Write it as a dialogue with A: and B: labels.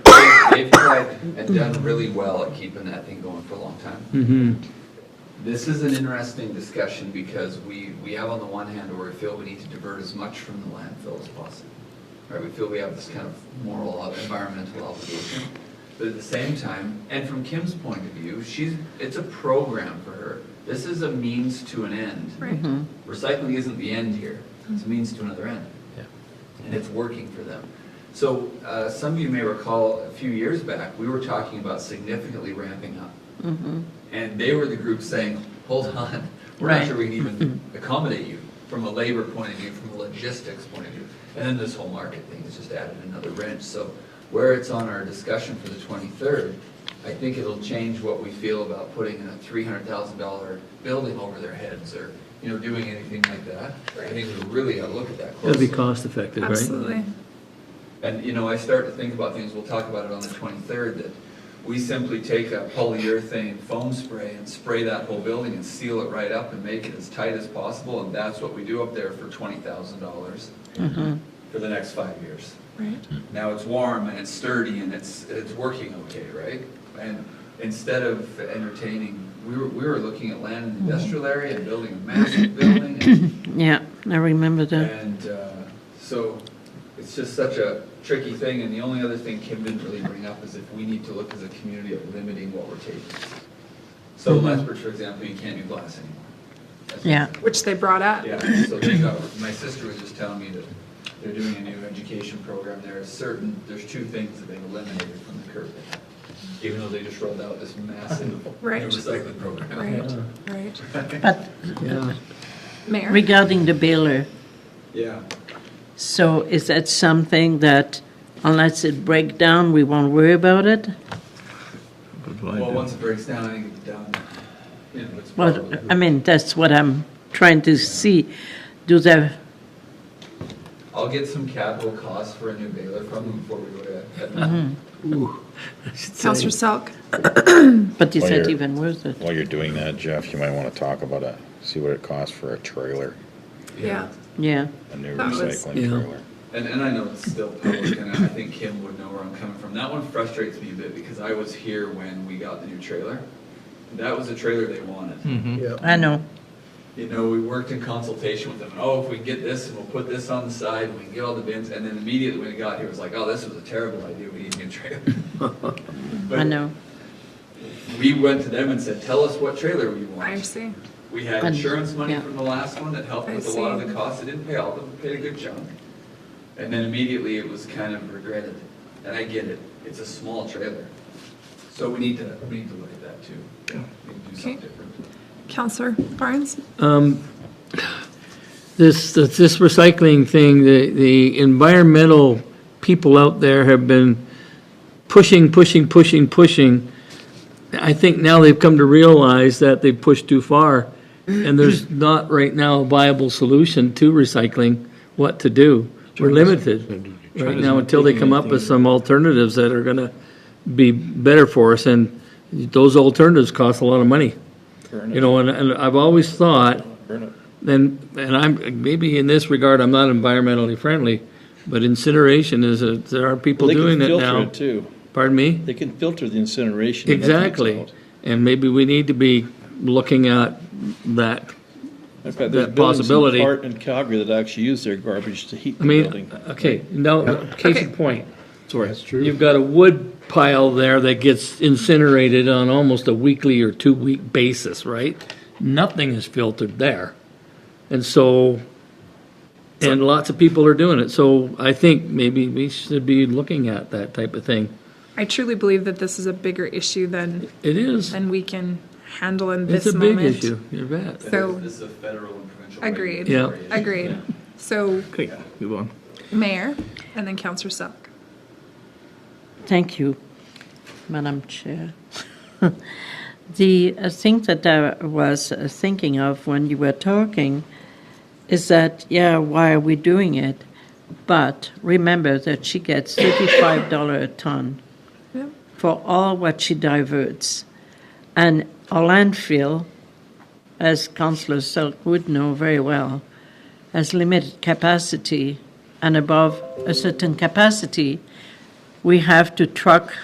A: have done really well at keeping that thing going for a long time.
B: Mm-hmm.
A: This is an interesting discussion because we, we have on the one hand where we feel we need to divert as much from the landfill as possible. Right, we feel we have this kind of moral, ob- environmental obligation. But at the same time, and from Kim's point of view, she's, it's a program for her. This is a means to an end.
C: Right.
A: Recycling isn't the end here, it's a means to another end.
B: Yeah.
A: And it's working for them. So, uh, some of you may recall, a few years back, we were talking about significantly ramping up. And they were the group saying, hold on, we're not
B: Right.
A: sure we can even accommodate you from a labor point of view, from a logistics point of view. And then this whole market thing has just added another wrench. So where it's on our discussion for the 23rd, I think it'll change what we feel about putting in a $300,000 building over their heads or, you know, doing anything like that. I think we really gotta look at that
B: That'd
A: closely.
B: be cost effective, right?
C: Absolutely.
A: And, you know, I start to think about things, we'll talk about it on the 23rd, that we simply take a polyurethane foam spray and spray that whole building and seal it right up and make it as tight as possible, and that's what we do up there for $20,000 for the next five years.
C: Right.
A: Now it's warm and it's sturdy and it's, it's working okay, right? And instead of entertaining, we were, we were looking at land in the industrial area and building a massive building and
D: Yeah, I remember that.
A: and uh, so it's just such a tricky thing, and the only other thing Kim didn't really bring up is if we need to look as a community at limiting what we're taking. So Lethbridge, for example, you can't do glass anymore. That's-
D: Mm-hmm. Yeah.
C: Which they brought up.
A: Yeah, so they got, my sister was just telling me that they're doing a new education program there, certain, there's two things that they've eliminated from the curriculum. Even though they just rolled out this massive new
C: Right.
A: recycling program.
C: Right, right.
D: But
B: Yeah.
C: Mayor?
D: regarding the baler,
A: Yeah.
D: so is that something that unless it break down, we won't worry about it?
A: Well, once it breaks down, I think it's done. You know, it's
D: Well,
A: probably-
D: I mean, that's what I'm trying to see. Do they,
A: I'll get some capital costs for a new baler from them before we go
D: Mm-hmm.
A: to.
B: Ooh. I should say.
C: Counselor Selk?
D: but is
E: Well,
D: that
E: you're-
D: even worth it?
E: While you're doing that, Jeff, you might want to talk about it, see what it costs for a trailer,
C: Yeah.
D: Yeah,
E: a new
C: That was-
E: recycling
B: Yeah.
E: trailer.
A: And, and I know it's still public, and I think Kim would know where I'm coming from. That one frustrates me a bit because I was here when we got the new trailer. That was the trailer they
D: Hmm.
A: wanted.
D: I know.
A: You know, we worked in consultation with them, and oh, if we can get this, and we'll put this on the side, and we can get all the bins, and then immediately when it got here, it was like, oh, this was a terrible idea, we need a new trailer.
D: I know.
A: But we went to them and said, tell us what trailer we want.
C: I see.
A: We had
D: And-
A: insurance money
D: yeah.
A: from the last one that helped
C: I
A: with a lot
C: see.
A: of the costs, it didn't pay all of them, it paid a good chunk. And then immediately it was kind of regretted, and I get it, it's a small trailer. So we need to, we need to look at that too. We need to do something
C: Okay.
A: different.
C: Counselor Barnes?
B: Um, This, this this recycling thing, the, the environmental people out there have been pushing, pushing, pushing, pushing. I think now they've come to realize that they've pushed too far, and there's not right now a viable solution to recycling, what to do. We're limited right now until they come up with some alternatives that are gonna be better for us, and those alternatives cost a lot of money. You know, and, and I've always thought, then, and I'm, maybe in this regard, I'm not environmentally friendly, but incineration is a, there are people
F: They can
B: doing it
F: filter
B: now.
F: it, Too.
B: Pardon me?
F: They can filter the incineration. and that takes
B: Exactly.
F: out.
B: And maybe we need to be looking at that.
F: In fact,
B: That
F: there's buildings
B: possibility.
F: in Hart and Calgary that actually use their garbage to heat
B: I
F: the
B: mean,
F: building.
B: okay, no, case in
C: Okay.
B: point. Sorry. That's true. You've got a wood pile there that gets incinerated on almost a weekly or two-week basis, right? Nothing is filtered there. And so, and lots of people are doing it. So I think maybe we should be looking at that type of thing.
C: I truly believe that this is a bigger issue than,
B: It is.
C: than we can handle in
B: It's
C: this
B: a big
C: moment.
B: issue. You bet.
C: So-
A: This is a federal and provincial.
C: Agreed.
B: Yeah.
A: regulatory issue.
C: Agreed. So,
F: Okay, move on.
C: Mayor, and then Counselor Selk.
D: Thank you, Madam Chair. The uh, thing that I was uh, thinking of when you were talking is that, yeah, why are we doing it? But remember that she gets $35 a ton
C: Yeah.
D: for all what she diverts. And our landfill, as Councillor Selk would know very well, has limited capacity, and above a certain capacity, we have to truck